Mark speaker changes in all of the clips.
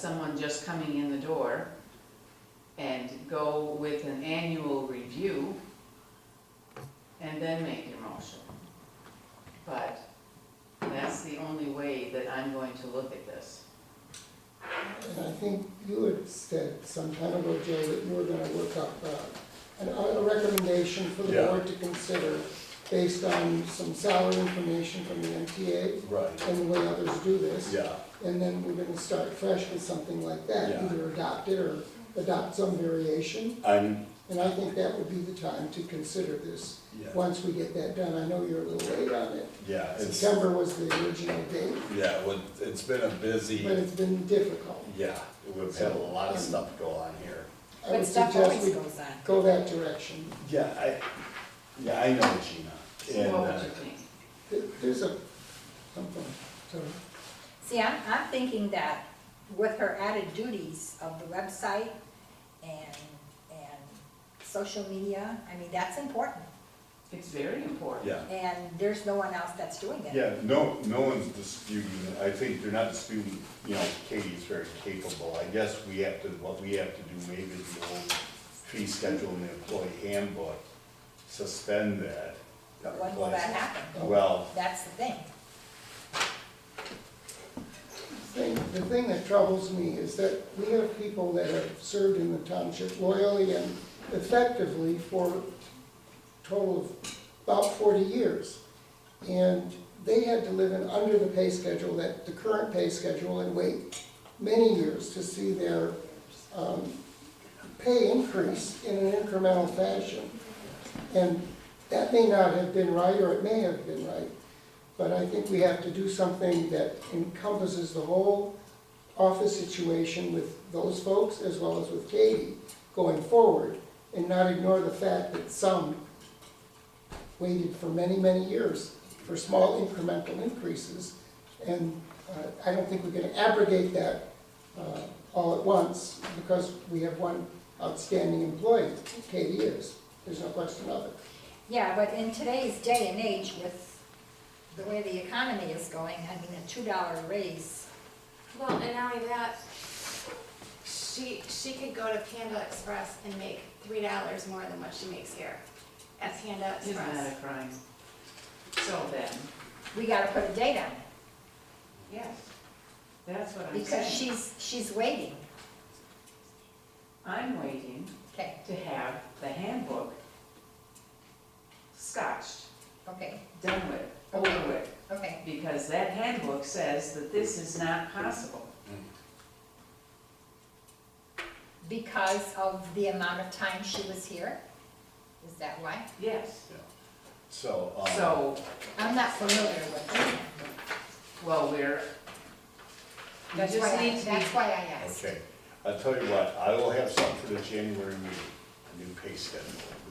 Speaker 1: someone just coming in the door and go with an annual review and then make your motion. But that's the only way that I'm going to look at this.
Speaker 2: And I think you had said some time ago, Joe, that you were gonna work up uh, an- a recommendation for the
Speaker 3: Yeah.
Speaker 2: board to consider based on some salary information from the MTA
Speaker 3: Right,
Speaker 2: and the way others do this.
Speaker 3: yeah,
Speaker 2: And then we're gonna start fresh with something like that,
Speaker 3: Yeah.
Speaker 2: either adopt it or adopt some variation.
Speaker 3: I'm,
Speaker 2: And I think that would be the time to consider this,
Speaker 3: yeah,
Speaker 2: once we get that done. I know you're a little late on it.
Speaker 3: yeah, it's,
Speaker 2: September was the original date,
Speaker 3: yeah, well, it's been a
Speaker 2: but
Speaker 3: busy,
Speaker 2: it's been difficult.
Speaker 3: yeah, we've had a lot of stuff go on here.
Speaker 2: I would
Speaker 4: But stuff
Speaker 2: suggest
Speaker 4: always
Speaker 2: we
Speaker 4: goes on.
Speaker 2: go that direction.
Speaker 3: Yeah, I, yeah, I know Gina, and,
Speaker 1: What would
Speaker 3: uh,
Speaker 1: you think?
Speaker 2: There- There's a, something, so,
Speaker 4: See, I'm, I'm thinking that with her added duties of the website and, and social media, I mean, that's important.
Speaker 1: It's very important.
Speaker 3: yeah.
Speaker 4: And there's no one else that's doing it.
Speaker 3: Yeah, no, no one's disputing, I think they're not disputing, you know, Katie's very capable, I guess we have to, what we have to do, maybe the old fee schedule in the employee handbook, suspend that.
Speaker 4: When will that happen?
Speaker 3: Well,
Speaker 4: That's the thing.
Speaker 2: thing, the thing that troubles me is that we have people that have served in the township loyally and effectively for a total of about forty years. And they had to live in under the pay schedule, that, the current pay schedule, and wait many years to see their, um, pay increase in an incremental fashion. And that may not have been right, or it may have been right, but I think we have to do something that encompasses the whole office situation with those folks as well as with Katie going forward, and not ignore the fact that some waited for many, many years for small incremental increases. And uh, I don't think we're gonna abrogate that uh, all at once, because we have one outstanding employee, Katie is, there's no question of it.
Speaker 4: Yeah, but in today's day and age with the way the economy is going, I mean, a two dollar raise,
Speaker 5: Well, and not only that, she, she could go to Panda Express and make three dollars more than what she makes here at Panda
Speaker 1: Isn't that
Speaker 5: Express.
Speaker 1: a crime? So then,
Speaker 4: we gotta put a date on it
Speaker 1: yes, that's what I'm
Speaker 4: because
Speaker 1: saying.
Speaker 4: she's, she's waiting.
Speaker 1: I'm waiting
Speaker 4: Okay,
Speaker 1: to have the handbook scotched,
Speaker 4: okay,
Speaker 1: done with, over with.
Speaker 4: okay.
Speaker 1: Because that handbook says that this is not possible.
Speaker 3: Mm.
Speaker 4: Because of the amount of time she was here? Is that why?
Speaker 1: Yes.
Speaker 3: so, um.
Speaker 1: So,
Speaker 4: I'm not familiar with it.
Speaker 1: well, we're, we
Speaker 4: That's why,
Speaker 1: just
Speaker 4: I-
Speaker 1: need to be,
Speaker 4: that's why I asked.
Speaker 3: Okay, I'll tell you what, I will have something for the January meeting, a new pay schedule,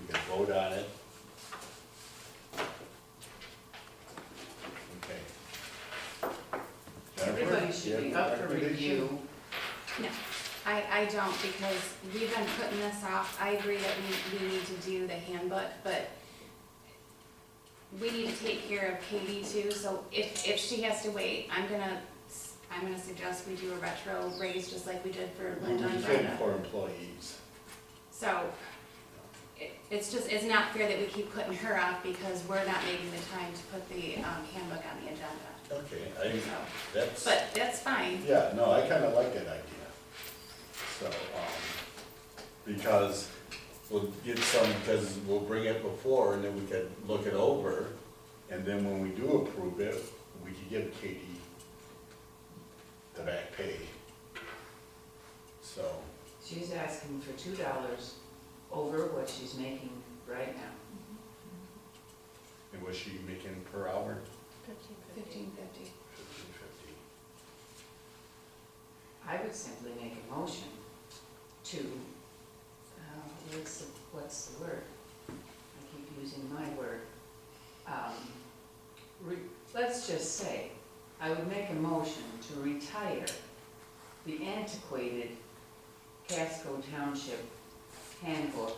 Speaker 3: we can vote on it. Okay. Jennifer,
Speaker 1: everybody
Speaker 3: you
Speaker 1: should be
Speaker 3: have a
Speaker 1: up for
Speaker 3: recommendation?
Speaker 1: review.
Speaker 5: No, I, I don't because we've been putting this off. I agree that we, we need to do the handbook, but we need to take care of Katie too, so if, if she has to wait, I'm gonna, s- I'm gonna suggest we do a retro raise just like we did for
Speaker 3: We
Speaker 5: Linda and Brenda.
Speaker 3: did for employees,
Speaker 5: So it, it's just, it's not fair that we keep putting her off because we're not making the time to put the um, handbook on the agenda.
Speaker 3: okay, I,
Speaker 5: So,
Speaker 3: that's,
Speaker 5: but that's fine.
Speaker 3: yeah, no, I kinda like that idea. So, um, because we'll get some, because we'll bring it before, and then we could look it over, and then when we do approve it, we could give Katie the back pay. So,
Speaker 1: She's asking for two dollars over what she's making right now.
Speaker 3: and was she making per hour?
Speaker 5: Fifteen fifty.
Speaker 3: Fifteen fifty.
Speaker 1: I would simply make a motion to, uh, what's, the- what's the word? I keep using my word. Um, re- Let's just say, I would make a motion to retire the antiquated Casco Township handbook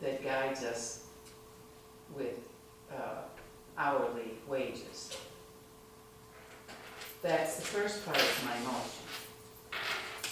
Speaker 1: that guides us with uh, hourly wages. That's the first part of my motion.